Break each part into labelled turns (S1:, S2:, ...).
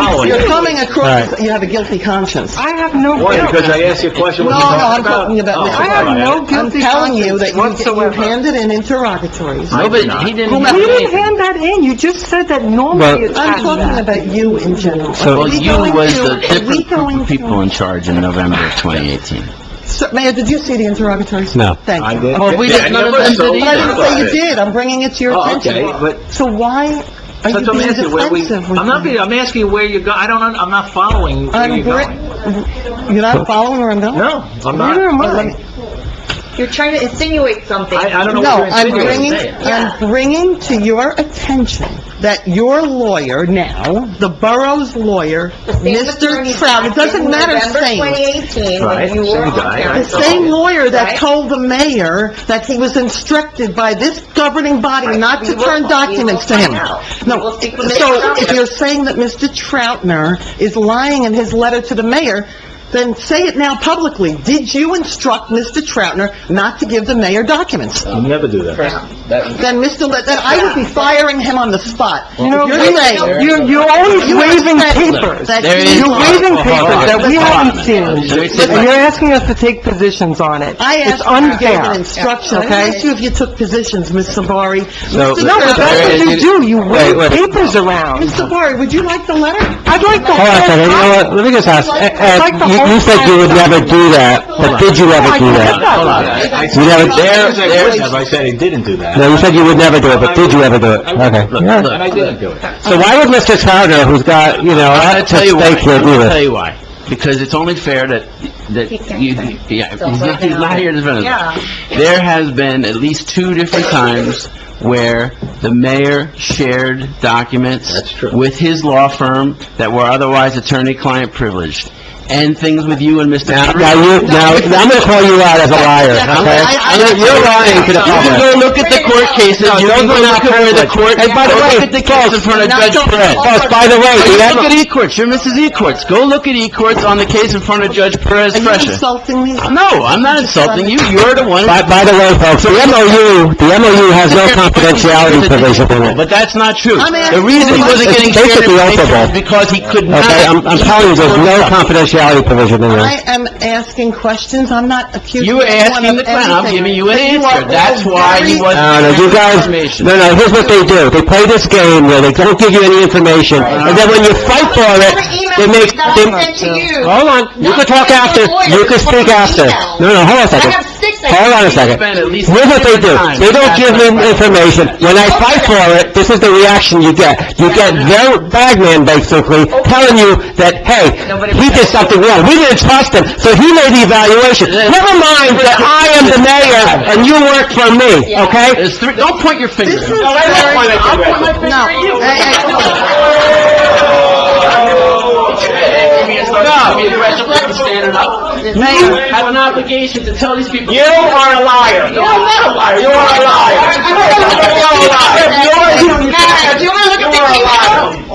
S1: You're coming across,
S2: Right.
S1: you have a guilty conscience.
S3: I have no
S4: Why?
S3: guilt.
S4: Because I asked you a question, what
S1: No,
S4: you
S1: no,
S4: talking
S1: I'm talking about
S4: Oh,
S1: Mr.
S3: I have
S4: okay.
S3: no
S1: I'm
S3: guilty
S1: telling you
S3: conscience
S1: that you- you
S3: whatsoever.
S1: handed in interrogatories.
S4: I did not.
S5: He didn't
S3: You
S5: have
S3: didn't
S5: anything.
S3: hand that in, you just said that
S2: Well-
S3: normally it's
S1: I'm talking
S3: handed
S1: about you in general.
S2: So-
S1: Are
S5: Well,
S1: we
S5: you
S1: going
S5: was
S1: to-
S5: the
S1: are we
S5: different
S1: going
S5: group
S1: to-
S5: of people in charge in November of 2018.
S1: Sir, Mayor, did you see the interrogatories?
S2: No.
S1: Thank you. Oh,
S4: I did.
S5: Well, we
S4: Yeah,
S5: didn't- none of
S4: I
S5: them
S4: never
S5: did
S1: But I didn't
S4: saw
S1: say you
S4: it.
S1: did, I'm bringing it to your
S4: Oh,
S1: attention.
S4: okay, but-
S1: So why are you
S4: That's what I'm
S1: being
S4: asking you, where we-
S1: defensive with
S4: I'm not
S1: me?
S4: being, I'm asking you where you're go, I don't, un- I'm not following where
S1: I'm
S4: you're going.
S1: bri- You're not following where I'm going?
S4: No, I'm
S1: Neither
S4: not.
S1: am I.
S6: You're trying to insinuate something.
S4: I, I don't know
S1: No,
S4: what
S1: I'm
S4: you're
S1: bringing,
S4: insinuating.
S1: I'm bringing to your attention that your lawyer now, the borough's lawyer, Mr. Trout, it doesn't matter saying.
S6: November 2018,
S4: Right,
S6: when you were
S4: same
S6: on
S4: guy,
S1: The
S6: council.
S1: same lawyer that
S6: Right.
S1: told the mayor that he was instructed by this governing body not to
S6: We will-
S1: turn documents to
S6: we will
S1: him.
S6: find out. We
S1: No,
S6: will
S1: so
S6: speak with Mr.
S1: if
S6: Troutner.
S1: you're saying that Mr. Troutner is lying in his letter to the mayor, then say it now publicly. Did you instruct Mr. Troutner not to give the mayor documents?
S4: You never do that.
S1: Then Mr. Le, then I would be firing him on the spot.
S3: You know,
S1: You're saying,
S3: You're, you're always
S1: You
S3: waving
S1: expect-
S3: papers.
S1: That
S5: There is-
S3: You're waving
S5: Hold on,
S2: Uh-huh.
S5: hold
S3: papers
S5: on.
S3: that we
S5: Hold on a
S3: haven't seen.
S5: minute. There's-
S3: And you're asking us to take positions on it.
S1: I
S3: It's
S1: asked you to give an
S3: unfair.
S1: instruction, I
S3: okay?
S1: didn't ask you if you took positions, Ms. Savari.
S2: No,
S1: Mr.
S3: No, but that's
S1: Troutner-
S3: what you do, you
S2: Wait,
S3: wave
S2: wait.
S3: papers around.
S1: Ms. Savari, would you like the letter?
S3: I'd like to...
S2: Hold on a second, you know what, let me just ask, Ed, Ed, you you said you would never do that, but did you ever do that?
S4: Hold on.
S2: You never, there,
S4: As I would
S2: there,
S4: have, I said he didn't do that.
S2: no, you said you would never do it, but did you ever do it? Okay.
S4: Look,
S2: Yeah.
S4: and I didn't do it.
S2: So why would Mr. Crowder, who's got, you know, a
S5: I'm
S2: lot
S5: gonna
S2: at
S5: tell you why.
S2: stake here,
S5: I'm
S2: do
S5: gonna tell
S2: this?
S5: you why. Because it's only fair that, that
S6: He can't
S5: you,
S6: say.
S5: yeah,
S6: So
S5: he's
S6: right
S5: not, he's
S6: now-
S5: not here to defend us.
S6: Yeah.
S5: There has been at least two different times where the mayor shared documents
S4: That's true.
S5: with his law firm that were otherwise attorney-client privileged, and things with you and Mr.
S2: Now,
S5: Patrick.
S2: now you, now, I'm gonna call you out as a liar, okay?
S5: I- I-
S2: You're- You're lying to the
S5: You can
S2: public.
S5: go look at the court cases,
S2: No,
S5: you
S2: those
S5: can go
S2: were not
S5: look at where the
S2: privileged.
S5: court,
S2: Hey, by the
S5: go
S2: way,
S5: look at the case in front of
S2: now
S5: Judge
S2: don't-
S5: Perez.
S2: Boss, by the way,
S5: Or you
S2: do you
S5: look at
S2: ever,
S5: E-Courts, you're Mrs. E-Courts, go look at E-Courts on the case in front of Judge Perez
S1: Are you
S5: Fresha.
S1: insulting me?
S5: Uh, No, I'm not insulting you, you're the one...
S2: by, by the way, folks, the MOU, the MOU has no confidentiality provision in it.
S5: But that's not true.
S1: I'm asking-
S5: The reason he wasn't
S2: It's
S5: getting shared
S2: basically
S5: information
S2: operable.
S5: is because he could not...
S2: Okay,
S6: Uh,
S2: I'm, I'm telling you, there's no confidentiality provision in there.
S1: I am asking questions, I'm not accusing
S5: You were
S1: anyone of anything.
S5: asking the clown, I'm giving you an
S1: But you
S5: answer.
S1: are
S5: That's
S1: all
S5: why
S1: very-
S5: he wasn't...
S2: No, no, Uh, you guys,
S5: Information.
S2: no, no, here's what they do. They play this game where they don't give you any information, and then when you fight for it, they make, they...
S6: That I sent to you.
S2: Hold on, you can talk
S6: Not
S2: after,
S6: the lawyer,
S2: you can speak
S6: the
S2: after.
S6: email.
S2: No, no, hold on a
S6: I
S2: second.
S6: have six. I
S2: Hold on a second.
S5: Spend at least
S2: Here's what they do.
S5: time.
S2: They don't give me information. When I fight for it, this is the reaction you get. You get their bagman, basically, telling you that, hey, he did something wrong. We didn't trust him, so he made the evaluation. Never mind that I am the mayor and you work for me, okay?
S5: There's three, don't point your finger.
S1: This is
S5: No,
S1: very-
S5: that's why they do that.
S1: No. Hey, hey,
S5: No, you're right, you're right, you're standing up. You
S1: Mayor,
S5: have an obligation to tell these people.
S4: You are a liar. You're not a liar. You're a liar. You're a liar.
S6: Now, do you want to look up the email?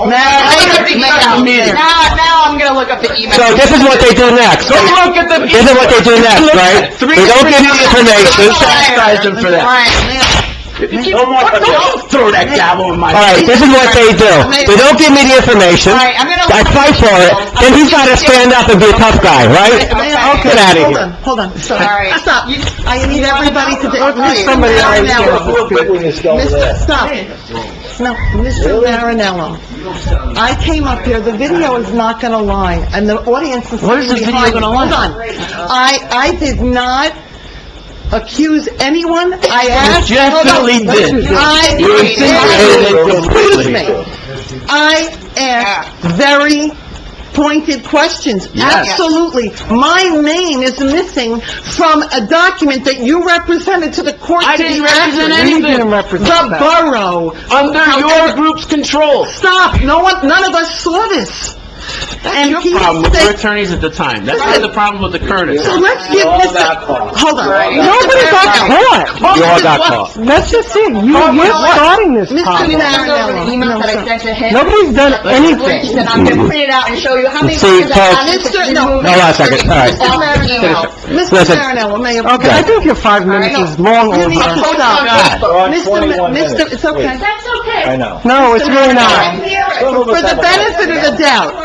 S1: Mayor, Mayor, Mayor.
S6: Now, now I'm going to look up the email.
S2: So this is what they do next.
S5: Don't look at the.
S2: This is what they do next, right? They don't give you information.
S5: Chastise them for that.
S4: Don't want to- don't throw that gavel in my
S2: All right, this is what they do. They don't give me the information.
S6: All right, I'm going to...
S2: I fight for it, then he's gotta stand up and be a tough guy, right?
S1: Mayor,
S2: Get outta
S1: hold
S2: here.
S1: on, hold on, stop.
S6: Sorry.
S1: Stop. I need everybody to... Mayor,
S3: somebody
S1: now,
S3: already
S1: now,
S3: get
S4: Who put this guy over
S1: Mr.
S4: there?
S1: Stop. No, Mr. Marinello, I came up here, the video is not gonna lie, and the audience is
S5: What is the
S1: sitting behind
S5: video
S1: me.
S5: gonna
S1: Hold
S5: lie?
S1: on. I, I did not accuse anyone, I asked...
S5: You
S1: Hold on.
S5: definitely did.
S1: I...
S5: You insinuated it
S1: Excuse
S5: completely.
S1: me. I asked very pointed questions.
S5: Yes.
S1: Absolutely. My name is missing from a document that you represented to the court.
S5: I
S1: to
S5: didn't
S1: be
S5: represent
S1: accurate.
S5: anything.
S3: You didn't represent
S1: The
S3: that.
S1: borough.
S5: Under your group's control.
S1: Stop! No one, none of us saw this. And
S5: Your
S1: he
S5: problem with your
S1: said,
S5: attorneys at the time. That's not the problem with the current attorney.
S1: so let's give
S4: All
S1: this,
S4: that part.
S1: hold on.
S3: Nobody got caught.
S2: You all got caught.
S3: That's the thing, you, you're starting this
S1: Mr.
S3: problem.
S6: The email that I sent to him.
S3: Nobody's done anything.
S6: And I'm going to print it out and show you how many...
S2: See,
S6: times
S2: Paul-
S6: I-
S1: Mr. No.
S2: No, last second, all right.
S6: All their emails.
S1: Mr.
S2: Listen.
S1: Marinello, Mayor.
S3: Okay, I think your five minutes is long
S1: You need to
S3: over.
S1: stop.
S4: We're on
S1: Mr.
S4: 21
S1: Ma- Mr.,
S4: minutes.
S1: it's okay.
S4: I know.
S3: No, it's really not.
S1: For the benefit of the doubt,